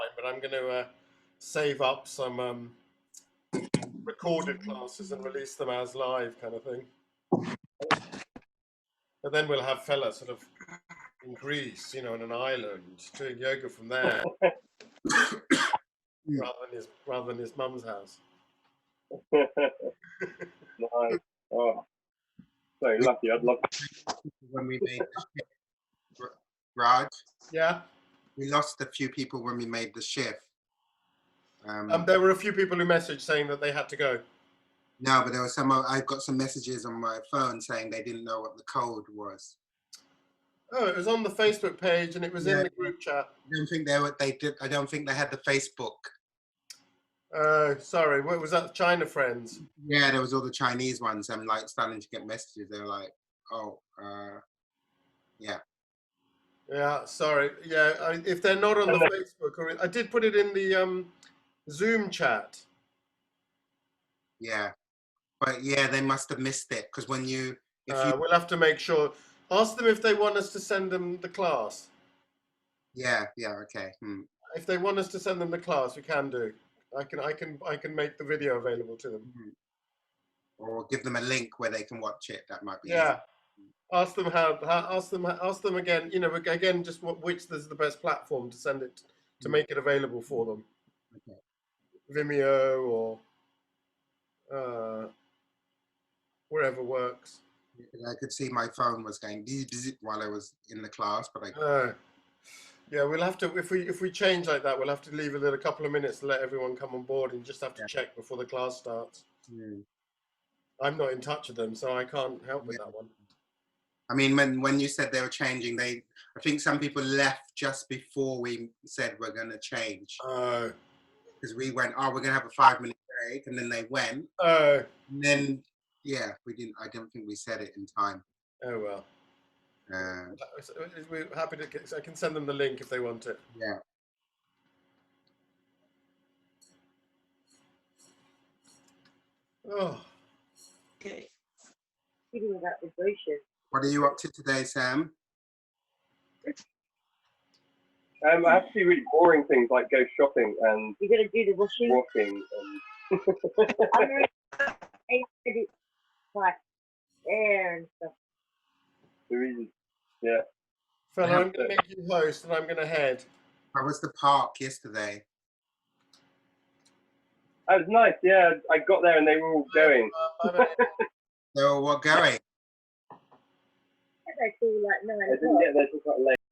but I'm going to uh, save up some um, recorded classes and release them as live kind of thing. But then we'll have fella sort of in Greece, you know, on an island doing yoga from there, rather than his rather than his mum's house. nice. Oh, so lucky. I'd love. when we made the shift. Ra- Raj, Yeah, we lost a few people when we made the shift. Um, um, there were a few people who messaged saying that they had to go. no, but there was some. I've got some messages on my phone saying they didn't know what the code was. Oh, it was on the Facebook page and it was in Yeah. the group chat. I don't think they were. They did. I don't think they had the Facebook. Oh, sorry, what was that? China friends. Yeah, there was all the Chinese ones. I'm like starting to get messages. They're like, oh, uh, Yeah, sorry. Yeah, I, if they're not on the Facebook, or I did put it in the um, Zoom chat. yeah, but yeah, they must have missed it because when you, if Uh, you, we'll have to make sure. Ask them if they want us to send them the class. yeah, yeah, okay, hmm. If they want us to send them the class, we can do. I can, I can, I can make the video available to them. hmm. or give them a link where they can watch it. That might be. easier. Yeah. Ask them how, how. Ask them. Ask them again. You know, again, just what, which is the best platform to send it to Mm. make it available for them. Okay. Vimeo or uh, wherever works. And I could see my phone was going bzz, bzz, while I was in the class, but I No. Uh, Yeah, we'll have to if we if we change like that, we'll have to leave it at a couple of minutes to let everyone come on board and just have to Yeah. check before the class starts. Hmm. I'm not in touch with them, so I can't help with that one. I mean, when when you said they were changing, they I think some people left just before we said we're going to change Oh, because we went, oh, we're going to have a five minute break, and then they went, oh, and then yeah, we didn't. I don't think we said it in time. oh well. Uh, So, uh, We're happy to. Get, I can send them the link if they want it. yeah, Oh, Okay. Speaking about the brochures, what are you up to today, Sam? Um, I have to do really boring things like go shopping and you're gonna do the washing. walking. And I'm gonna eight thirty, like hair and stuff. the reason. fella, Yeah. I'm going to make you host, and I'm going to head. How was the park yesterday? That was nice. Yeah, I got there and they were all going. Uh, I don't- They were what going? I think I do like I nine didn't o'clock. get there till quite late.